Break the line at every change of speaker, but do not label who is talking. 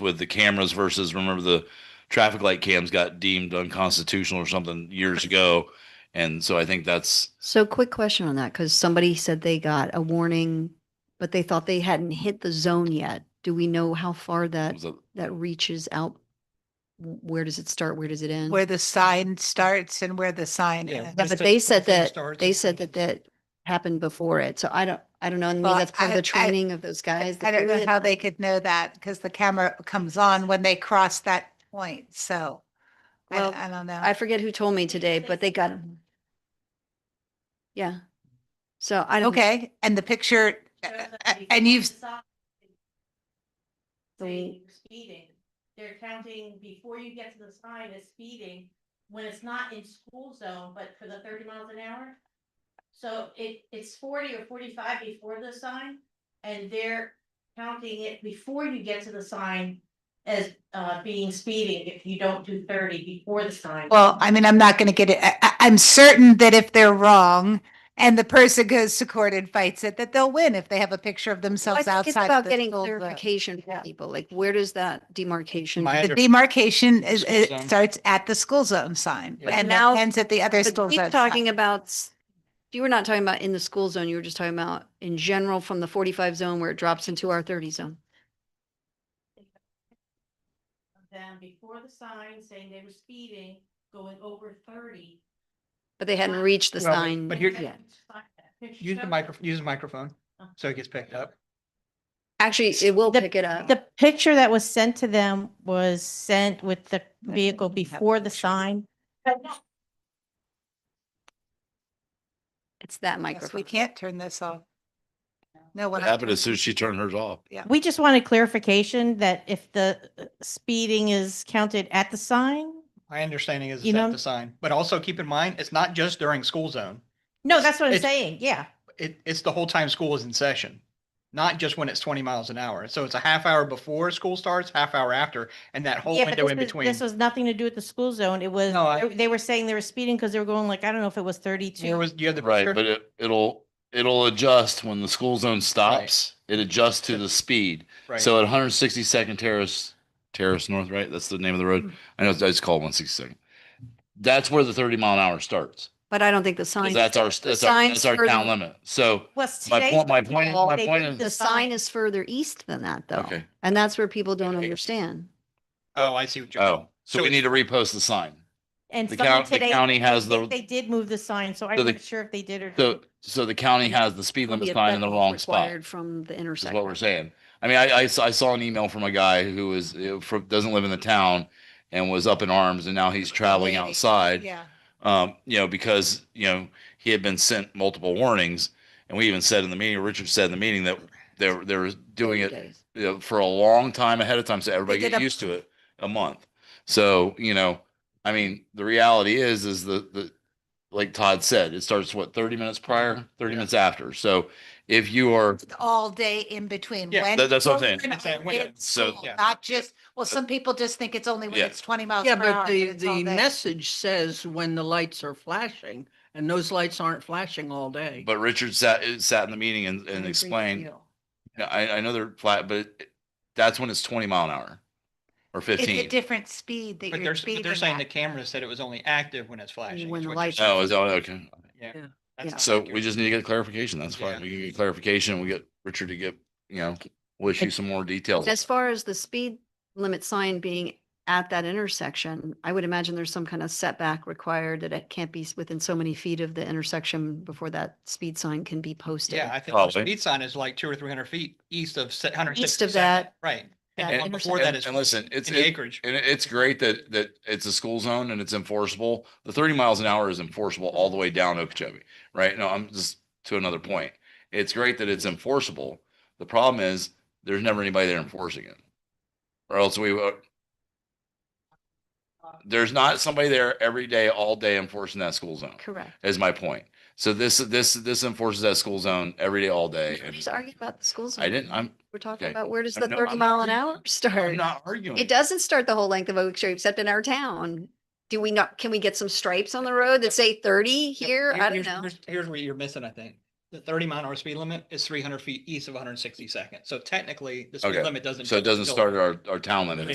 with the cameras versus remember the traffic light cams got deemed unconstitutional or something years ago. And so I think that's
So quick question on that, because somebody said they got a warning, but they thought they hadn't hit the zone yet. Do we know how far that,
Mm.
was a-
that reaches out? W- Where does it start? Where does it end?
where the sign starts and where the sign
Mm-hmm. Yeah.
ends.
Yeah, but
just
they
the
said
thing
that,
starts
they
and
said that that happened before it. So I don't, I don't know. And maybe
Well,
that's part of
I-
the
I-
training of those guys. that
I don't
do
know
it.
how they could know that because the camera comes on when they cross that point. So I,
Well,
I don't know.
I forget who told me today, but they got, yeah. So I don't.
Okay, and the picture, uh, uh, and you've,
Saying you're speeding, they're counting before you get to the sign as speeding, when it's not in school zone, but for the thirty miles an hour. So it, it's forty or forty-five before the sign, and they're counting it before you get to the sign as, uh, being speeding if you don't do thirty before the sign.
well, I mean, I'm not going to get it. I, I- I'm certain that if they're wrong and the person goes to court and fights it, that they'll win if they have a picture of
Well, I
themselves
think It's
outside.
about
the
getting
school zone.
clarification for
Yeah.
people, like where does that demarcation?
My
The
under-
demarcation is,
School
it
zone.
starts at the school zone sign
Yeah. But
and it
now-
ends at the other school
But
zone.
You're
sign.
talking about, s- you were not talking about in the school zone, you were just talking about in general from the forty-five zone where it drops into our thirty zone.
Then before the sign saying they were speeding, going over thirty.
But they hadn't reached the
Well, but-
sign
but here-
yet.
Use the micro, use the microphone, so it gets picked up.
Actually, it will
The-
pick it up.
The picture that was sent to them was sent with the
I
vehicle
think we have
before the
pictures.
sign.
It's that
Yes, We
microphone.
can't turn this off. No,
what
what I'm-
happened as soon as she turned hers off.
We just wanted clarification that if the uh, speeding is counted at the sign.
My understanding is
You
it's at
know-
the sign, but also keep in mind, it's not just during school zone.
No, that's what I'm
It's-
saying. Yeah.
It, it's the whole time school is in session, not just when it's twenty miles an hour. So it's a half hour before school starts, half hour after, and that whole
Yeah, but
window
this
in
was-
between.
This was nothing to do with the school zone. It was,
No, I-
they- they were saying they were speeding because they were going like, I don't know if it was
There
thirty-two.
was, you have the
Right.
picture?
But it, it'll, it'll adjust when the school zone stops. It adjusts to the speed.
Right.
So at 162nd Terrace, Terrace North, right? That's the name of the
Mm-hmm.
road. I know it's, it's called 162nd. That's where the 30 mile an hour starts.
But I don't think the sign,
That's our,
the
that's our,
sign's
that's our
further-
town limit. So
Was
my
today's
point, my point,
call,
my
they
point
did
is,
the sign is further east than that though.
okay.
And that's where people don't understand.
Oh, I see what you're.
Oh, so
So
we
it's-
need to repost the sign.
And
The
someone
county, the
today,
county has
they they
the,
did move the sign, so
So
I'm
the-
not sure if they did or.
so, so the county has the speed
Probably
limit
a
sign in the
better
wrong spot.
required From the
is
intersection.
what we're saying. I mean, I, I, s- I saw an email from a guy who is, uh, from, doesn't live in the town and was up in arms and now he's traveling
Waiting.
outside.
Yeah.
Um, you know, because, you know, he had been sent multiple warnings and we even said in the meeting, Richard said in the meeting that they're, they're doing it
Days.
you know, for a long time ahead of time. So everybody
did
get
a-
used to it, a month. So, you know, I mean, the reality is, is the, the, like Todd said, it starts what, thirty minutes prior, thirty minutes after. So if you are
all day in between.
Yeah,
when
that- that's what I'm saying.
children
It's that
are
window.
in
So-
school,
Yeah.
Not just, well, some people just think it's only when
Yeah.
it's twenty miles
Yeah,
per hour.
but the,
it's all
the
day.
message says when the lights are flashing and those lights aren't flashing all day.
But Richard sat, uh, sat in the meeting and,
What a
and
great
explained,
deal.
"Yeah, I, I know they're flat, but it- that's when it's twenty mile an hour or
It's a
fifteen.
different speed that
But
you're
they're, s- but
speeding
they're saying the
at.
camera said it was only active when it's flashing.
When
is
the
what you're
lights-
saying.
Oh, is that okay?
Yeah.
Yeah.
That's
Yeah.
not
Oh, So
accurate.
we just need to get clarification. That's
Yeah.
fine. We can get clarification. We get Richard to get, you know, we'll issue some more details.
As far as the speed limit sign being at that intersection, I would imagine there's some kind of setback required that it can't be s- within so many feet of the intersection before that speed sign can be posted.
Yeah, I think the
Probably.
speed sign is like two or three hundred feet east of se- 160
East of
Second,
that-
Right.
that
And the one before that
And
is
and listen, it's,
in the
it-
acreage.
and it- it's great that, that it's a school zone and it's enforceable. The thirty miles an hour is enforceable all the way down Okeechobee, right? No, I'm just to another point. It's great that it's enforceable. The problem is there's never anybody there enforcing it. Or else we, would- there's not somebody there every day, all day enforcing that school zone
Correct.
is my point. So this, this, this enforces that school zone every day, all day. and
Just arguing about the schools.
I didn't, I'm,
We're talking
okay.
about where does
I
the
know,
thirty
I'm
mile an
arguing.
hour
I'm
start?
not arguing.
It doesn't start the whole length of Okeechobee except in our town. Do we not, can we get some stripes on the road that say thirty here?
Here-
I don't
here's-
know.
here's- Here's where you're missing, I think. the thirty mile an hour speed limit is three hundred feet east of one hundred and sixty second. So technically, the
Okay.
speed limit doesn't.
So it doesn't
still-
start at our, our town limit.